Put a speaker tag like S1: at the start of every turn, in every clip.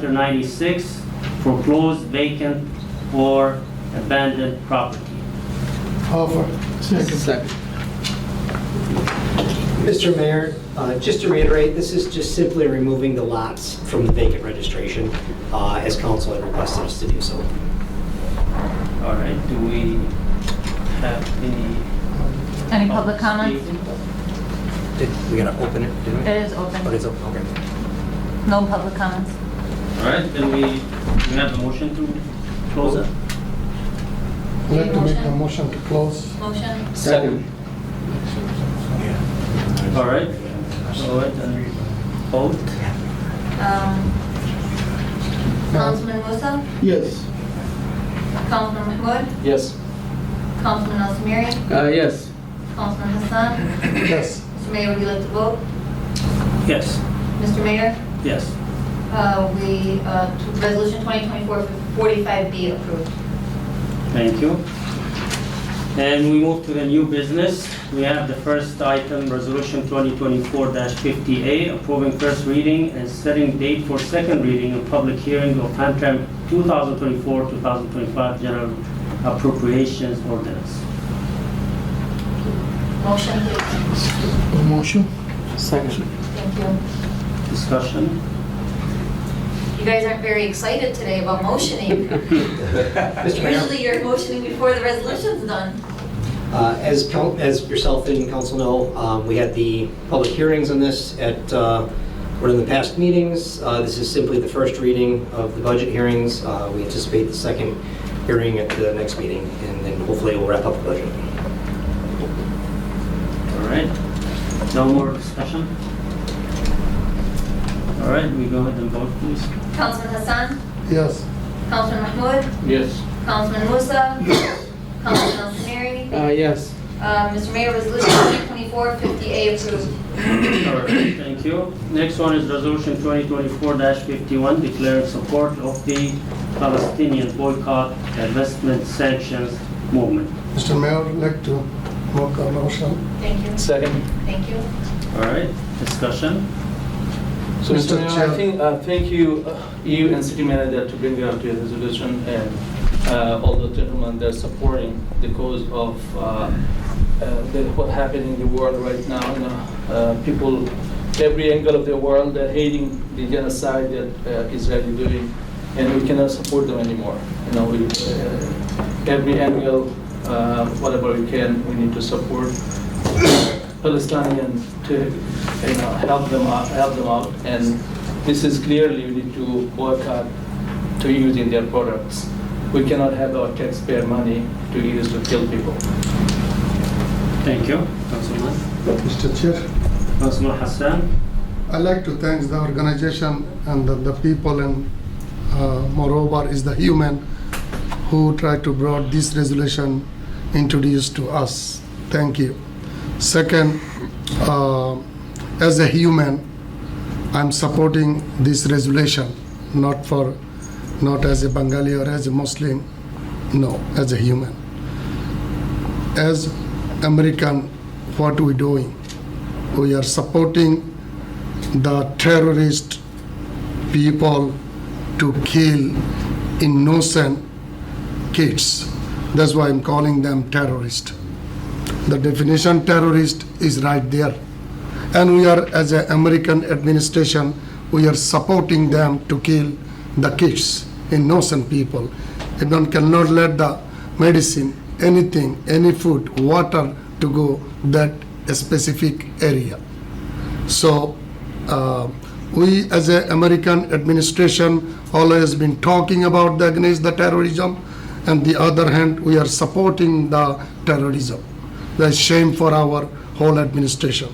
S1: Chapter 96, foreclosed, vacant, or abandoned property.
S2: Offer. Second.
S3: Second.
S4: Mr. Mayor, uh, just to reiterate, this is just simply removing the lots from the vacant registration, uh, as council had requested us to do so.
S1: All right, do we have any?
S5: Any public comments?
S4: Did, we gotta open it, didn't
S5: It
S6: Uh,
S5: is open.
S4: But it's open, okay.
S5: No public comments.
S1: All right, then we, we have a motion to close it?
S2: I'd like to make a motion to close.
S5: Motion?
S3: Second.
S1: All right, all right, and vote.
S6: Um, Councilman Musa,
S2: Yes.
S6: Councilman McWood,
S3: Yes.
S6: Councilman Al Samiri,
S3: Uh, yes.
S6: Councilman Hassan.
S2: Yes.
S6: Mr. Mayor, would you like to vote?
S1: Yes,
S6: Mr. Mayor,
S1: yes.
S6: uh, we, uh, t- Resolution 2024-45B approved.
S1: Thank you. And we move to the new business. We have the first item, Resolution 2024-50A, approving first reading and setting date for second reading and public hearing of Hamtramck 2024-2025 General Appropriations Ordinance.
S6: Motion, please.
S2: A motion?
S3: Second.
S6: Thank you.
S1: Discussion?
S6: You guys aren't very excited today about motioning.
S4: Mr. Mayor,
S6: Usually you're motioning before the resolution's done.
S4: uh, as, coun- as yourself and council know, um, we had the public hearings on this at, uh, one of the past meetings. Uh, This is simply the first reading of the budget hearings. Uh, We anticipate the second hearing at the next meeting, and then hopefully we'll wrap up the budget.
S1: All right. No more discussion? All right, we go ahead and vote, please.
S6: Councilman Hassan,
S2: Yes.
S6: Councilman McWood,
S3: Yes.
S6: Councilman Musa, Councilman Al Samiri.
S3: Uh, yes.
S6: Uh, Mr. Mayor, Resolution 2024-50A approved.
S1: All right, thank you. Next one is Resolution 2024-51, declaring support of the Palestinian boycott investment sanctions movement.
S2: Mr. Mayor, I'd like to make a motion.
S6: Thank you.
S3: Second.
S6: Thank you.
S1: All right, discussion?
S7: So,
S2: Mr.
S7: Mr. Mayor,
S2: Chair.
S7: I think, uh, thank you, uh, you and city manager to bring up the resolution and uh, all the gentlemen that are supporting the cause of uh, uh, the- what happened in the world right now. You know, uh, people, every angle of the world, they're hating the genocide that uh, Israel is doing, and we cannot support them anymore. You know, we, uh, every angle, uh, whatever we can, we need to support. Palestinian to, you know, help them out, help them out. And this is clearly we need to boycott to using their products. We cannot have our taxpayer money to use to kill people.
S1: Thank you, Councilman.
S2: Mr. Chair,
S1: Councilman Hassan?
S2: I'd like to thank the organization and the- the people and uh, moreover is the human who tried to brought this resolution introduced to us. Thank you. Second, uh, as a human, I'm supporting this resolution, not for, not as a Bengali or as a Muslim, no, as a human. As American, what we doing? We are supporting the terrorist people to kill innocent kids. That's why I'm calling them terrorist. The definition terrorist is right there. And we are, as an American administration, we are supporting them to kill the kids, innocent people. Iran cannot let the medicine, anything, any food, water to go that specific area. So uh, we, as a American administration, always been talking about the against the terrorism, and the other hand, we are supporting the terrorism. That's shame for our whole administration.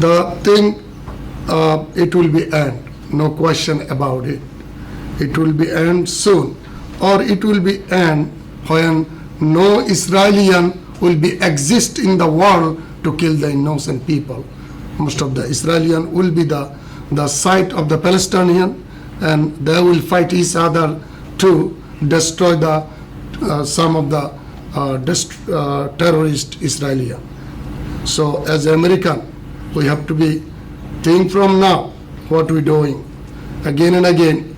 S2: The thing, uh, it will be end, no question about it. It will be end soon, or it will be end when no Israelian will be exist in the world to kill the innocent people. Most of the Israelian will be the the side of the Palestinian, and they will fight each other to destroy the uh, some of the uh, dest- uh, terrorist Israeli. So as American, we have to be think from now what we doing. again and again,